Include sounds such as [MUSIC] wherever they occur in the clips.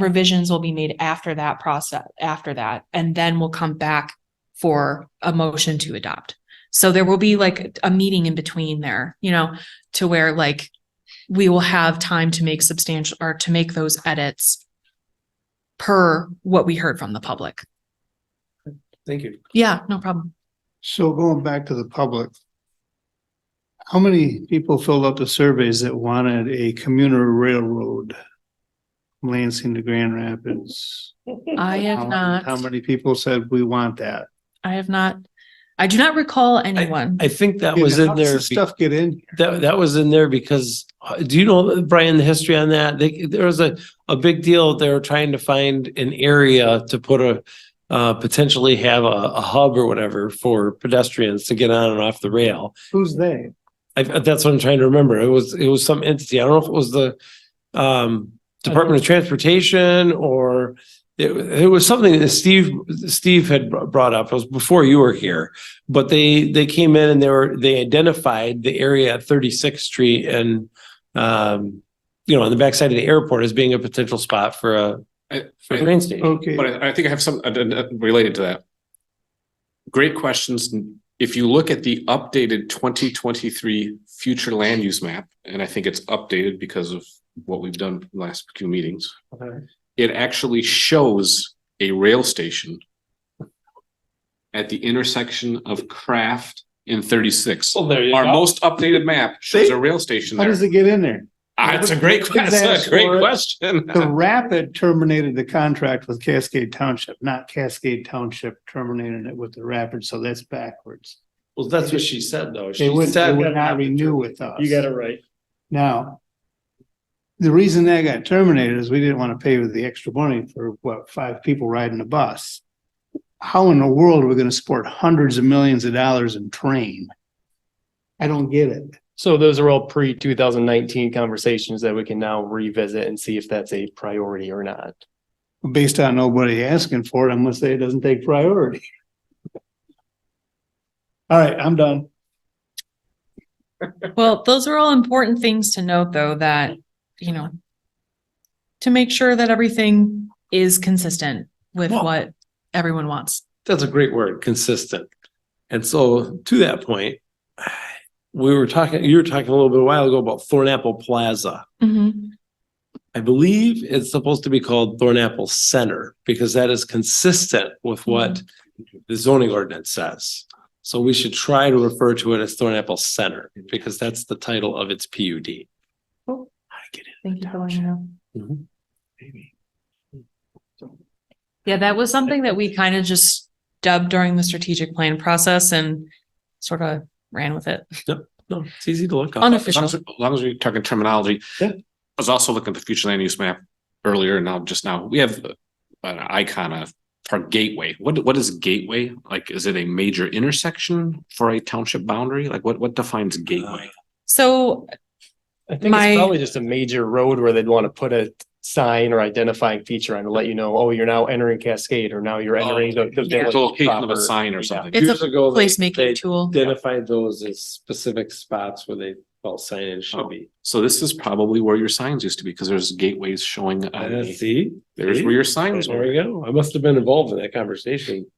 revisions will be made after that process, after that, and then we'll come back for a motion to adopt. So there will be like a meeting in between there, you know, to where like we will have time to make substantial or to make those edits per what we heard from the public. Thank you. Yeah, no problem. So going back to the public. How many people filled out the surveys that wanted a commuter railroad? from Lansing to Grand Rapids. I have How- How not, many people said we want that? I have not, I do not recall anyone. I think that was How in does there, this Stuff get in. be- that, that was in there because, uh, do you know, Brian, the history on that? They, there was a, a big deal. They were trying to find an area to put a, uh, potentially have a, a hub or whatever for pedestrians to get on and off the rail. Who's they? I, that's what I'm trying to remember. It was, it was some entity. I don't know if it was the, um, Department of Transportation or it, it was something that Steve, Steve had br- brought up. It was before you were here. But they, they came in and they were, they identified the area at 36th Street and, um, you know, on the backside of the airport as being a potential spot for a, I- for a I- train station. Okay, But I I think I have some uh, uh, related to that. Great questions. If you look at the updated twenty twenty-three future land use map, and I think it's updated because of what we've done last few meetings. Okay. It actually shows a rail station at the intersection of Craft and thirty-six. Well, Oh, there you Our go. most updated map shows a rail station how does there. it get in there? Ah, It's a great, que- that's a great question. The Rapid terminated the contract with Cascade Township, not Cascade Township terminated it with the Rapid, so that's backwards. Well, that's what she said though. She They would, they said- would not renew with us. You got it right. Now, the reason that got terminated is we didn't want to pay with the extra money for what, five people riding a bus. How in the world are we going to support hundreds of millions of dollars in train? I don't get it. So those are all pre two thousand nineteen conversations that we can now revisit and see if that's a priority or not. Based on nobody asking for it, I'm going to say it doesn't take priority. [LAUGHS] All right, I'm done. Well, those are all important things to note, though, that, you know, to make sure that everything is consistent with Well- what everyone wants. that's a great word, consistent. And so to that point, we were talking, you were talking a little bit a while ago about Thornapple Plaza. Mm-hmm. I believe it's supposed to be called Thornapple Center because that is consistent with what the zoning ordinance says. So we should try to refer to it as Thornapple Center because that's the title of its PUD. Thank you for letting me know. Mhm. Yeah, that was something that we kind of just dubbed during the strategic plan process and sort of ran with it. No, it's easy to look up. As long Unofficial. as- as long as we're talking terminology. Yeah. I was also looking at the future land use map earlier and now just now, we have uh, an icon of our gateway. What, what is gateway? Like, is it a major intersection for a township boundary? Like what, what defines Uh, gateway? So, I think My- it's probably just a major road where they'd want to put a sign or identifying feature on to let you know, oh, you're now entering Cascade or now you're Oh, entering the the yeah. The village. location of a proper. sign or Yeah. something. It's a Years ago, they- they placemaking tool. Identified those as specific spots where they felt signage should be. So this is probably where your signs used to be because there's gateways showing. on Uh, the- see? There's See? where your signs There were. we go. I must have been involved in that conversation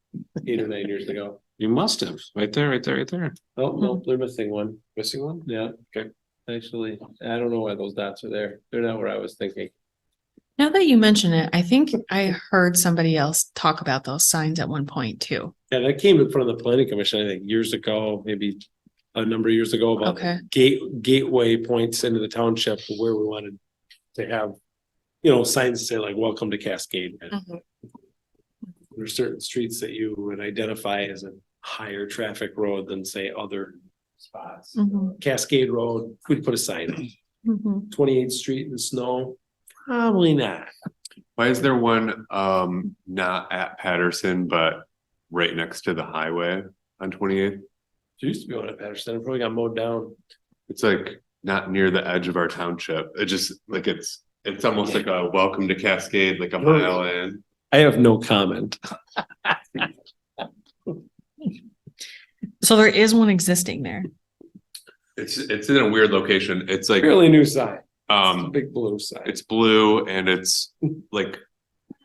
eight or nine years ago. You must have, right there, right there, right there. Oh, no, they're missing one. Missing one? Yeah. Okay. Actually, I don't know why those dots are there. They're not where I was thinking. Now that you mention it, I think I heard somebody else talk about those signs at one point too. Yeah, that came in front of the planning commission, I think, years ago, maybe a number of years ago about Okay. gate, gateway points into the township where we wanted to have, you know, signs that say like, welcome to Cascade. And There are certain streets that you would identify as a higher traffic road than say other spots. Mhm, Cascade Road, we'd put a sign, mhm. twenty-eighth street in snow, probably not. Why is there one um not at Patterson, but right next to the highway on twenty eighth? There used to be one at Patterson, it probably got mowed down. It's like not near the edge of our township. It just like it's it's almost like a welcome to Cascade, like a mile in. I have no comment. So there is one existing there. It's it's in a weird location. It's like Fairly new sign, It's a um big blue sign. it's blue and it's like